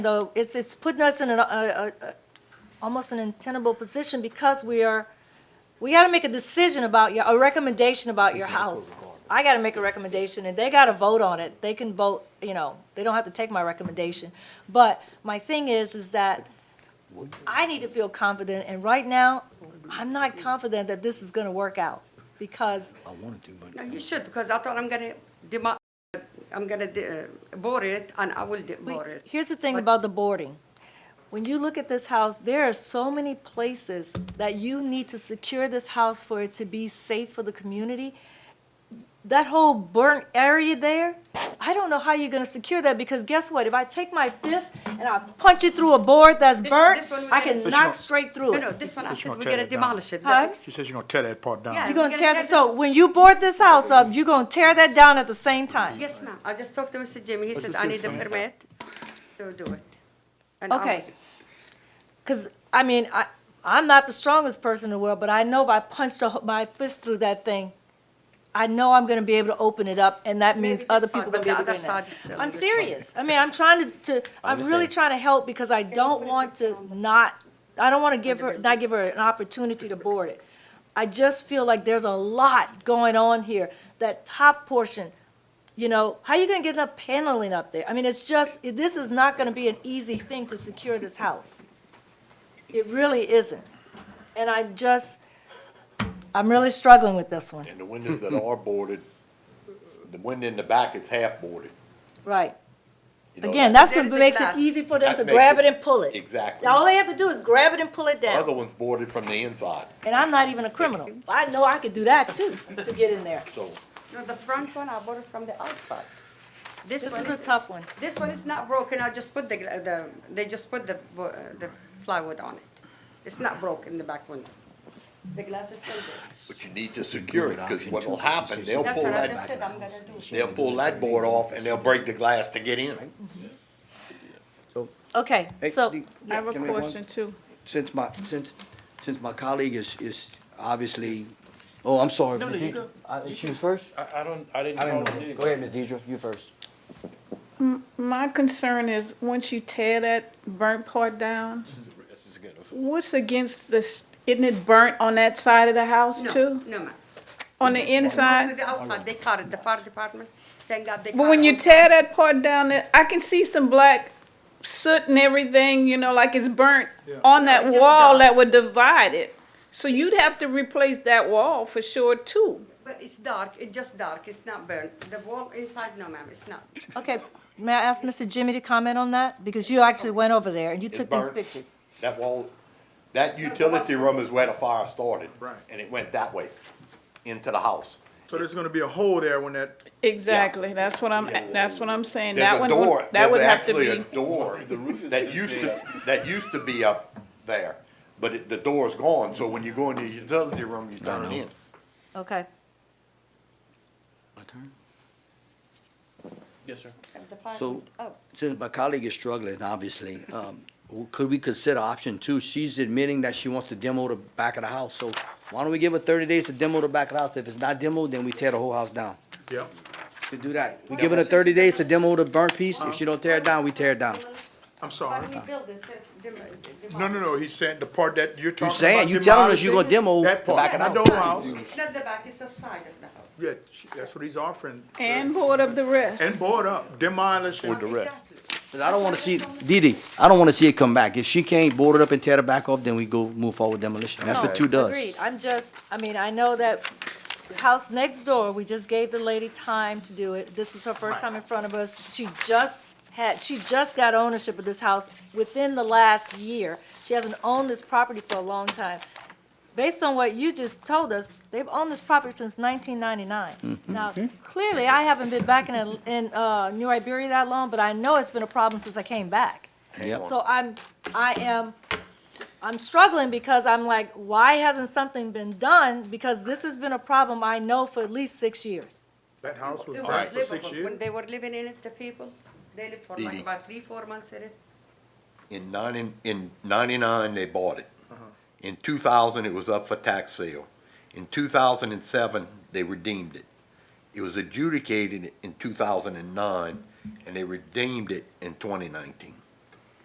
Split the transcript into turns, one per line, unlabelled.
though, it's, it's putting us in an, a, a, a- almost an untenable position because we are, we gotta make a decision about your, a recommendation about your house. I gotta make a recommendation, and they gotta vote on it. They can vote, you know, they don't have to take my recommendation. But my thing is, is that I need to feel confident, and right now, I'm not confident that this is gonna work out, because
I wanted to, but
No, you should, because I thought I'm gonna demo, uh, I'm gonna de- bore it, and I will de-
Wait,
bore it.
Here's the thing
But-
about the boarding. When you look at this house, there are so many places that you need to secure this house for it to be safe for the community. That whole burnt area there, I don't know how you're gonna secure that, because guess what? If I take my fist and I punch it through a board that's
This-
burnt,
this one we
I
gotta-
can
So
she
knock
won't-
straight through
No, no,
it.
this one, I
It's
said
not
we're
tear
gonna
it down.
demolish it. The
Huh?
ex-
She says you're gonna tear that part down.
Yeah.
You're
we're
gonna
gonna
tear,
tear
th- so when you board this house up, you're gonna tear that down at the same time.
Yes, ma'am, I just talked to Mr. Jimmy, he said
the
I need a
same thing.
permit to do it. And I
Okay.
will-
Because, I mean, I, I'm not the strongest person in the world, but I know if I punch the ho- my fist through that thing, I know I'm gonna be able to open it up, and that means
Maybe this
other
side,
people
but
gonna be
the
able to
other
get in
side is
there.
still-
I'm serious. I mean, I'm trying to, to, I'm really trying to help because I don't want to not, I don't wanna give her, not give her an opportunity to board it. I just feel like there's a lot going on here. That top portion, you know, how you gonna get enough paneling up there? I mean, it's just, this is not gonna be an easy thing to secure this house. It really isn't. And I just, I'm really struggling with this one.
And the windows that are boarded, the window in the back is half boarded.
Right.
you know,
Again,
that-
that's what
There's a
makes it
glass.
easy for them
That
to
makes
grab it
it-
and pull it.
Exactly.
All they have to do is grab it and pull it
The other
down.
one's boarded from the inside,
And I'm not even a criminal. I know I could do that too, to get in there.
so
No, the front one, I bought it from the outside. This
This is
one,
a
is-
tough one.
this one is not broken, I just put the, gla- the, they just put the, bo- uh, the plywood on it. It's not broken, the back window. The glass is still there.
but you need to secure it, because what'll happen, they'll
That's
pull
what I just
that,
said, I'm gonna do.
they'll pull that board off and they'll break the glass to get in.
Okay,
Hey,
so,
the-
I have a
can we-
question too.
Since my, since, since my colleague is, is obviously, oh, I'm sorry.
No, no, you go. Oh,
I- She was first?
I, I don't, I didn't
I
call
didn't
it
know. Go ahead, Ms. Deidre, you first.
My concern is, once you tear that burnt part down,
This is good.
what's against this, isn't it burnt on that side of the house
No,
too?
No, ma'am.
On the
Mostly
inside?
the outside, they caught it, the fire department, thank God they caught it.
But when you
on-
tear that part down, there- I can see some black soot and everything, you know, like it's burnt on
No,
that
it just
wall
don't.
that would divide it. So you'd have to replace that wall for sure too.
But it's dark, it's just dark, it's not burnt. The wall inside, no ma'am, it's not.
okay, may I ask Mr. Jimmy to comment on that? Because you actually went over there and you
It's
took these
burnt.
pictures.
That wall, that utility room is where the fire started.
Right.
And it went that way, into the house.
So there's gonna be a hole there when that,
Exactly, that's what I'm, that's what I'm saying. That
There's a
one would-
door,
That
there's
would have to
actually a
be,
door that used to, that used to be up there, but it- the door's gone, so when you go into the utility room, you turn it in.
Okay,
My turn?
Yes, sir.
So,
oh.
since my colleague is struggling, obviously, um, w- could we consider option two? She's admitting that she wants to demo the back of the house, so why don't we give her thirty days to demo the back of the house? If it's not demoed, then we tear the whole house down.
yeah,
We do that. We give her the thirty days to demo the burnt piece. If she don't tear it down, we tear it down.
I'm sorry.
built this, dem-
No, no, no, he's saying the part that you're talking about.
saying, you telling us you gonna
demolishing,
demo
that
the
part.
back of the
Not whole house.
It's not the back, it's the side of the house.
Yeah, she- that's what he's offering.
and board of the rest.
And board up, demolish. With
Exactly.
'Cause I don't wanna see, Didi, I don't wanna see it come back. If she can't board it up and tear the back off, then we go move forward demolition. That's what
No,
two does.
Agreed, I'm just, I mean, I know that the house next door, we just gave the lady time to do it. This is her first time in front of us. She just had, she just got ownership of this house within the last year. She hasn't owned this property for a long time. Based on what you just told us, they've owned this property since nineteen ninety-nine. Now, clearly, I haven't been back in, Atl- in, uh, New Iberia that long, but I know it's been a problem since I came back.
Yep.
So I'm, I am, I'm struggling because I'm like, why hasn't something been done? Because this has been a problem I know for at least six years.
That house was
It
built
was
for six
livable.
years.
When they were living in it, the people, they lived for like
Didi.
about three, four months in it.
In ninety, in ninety-nine, they bought it. In two thousand, it was up for tax sale. In two thousand and seven, they redeemed it. It was adjudicated in two thousand and nine, and they redeemed it in twenty nineteen.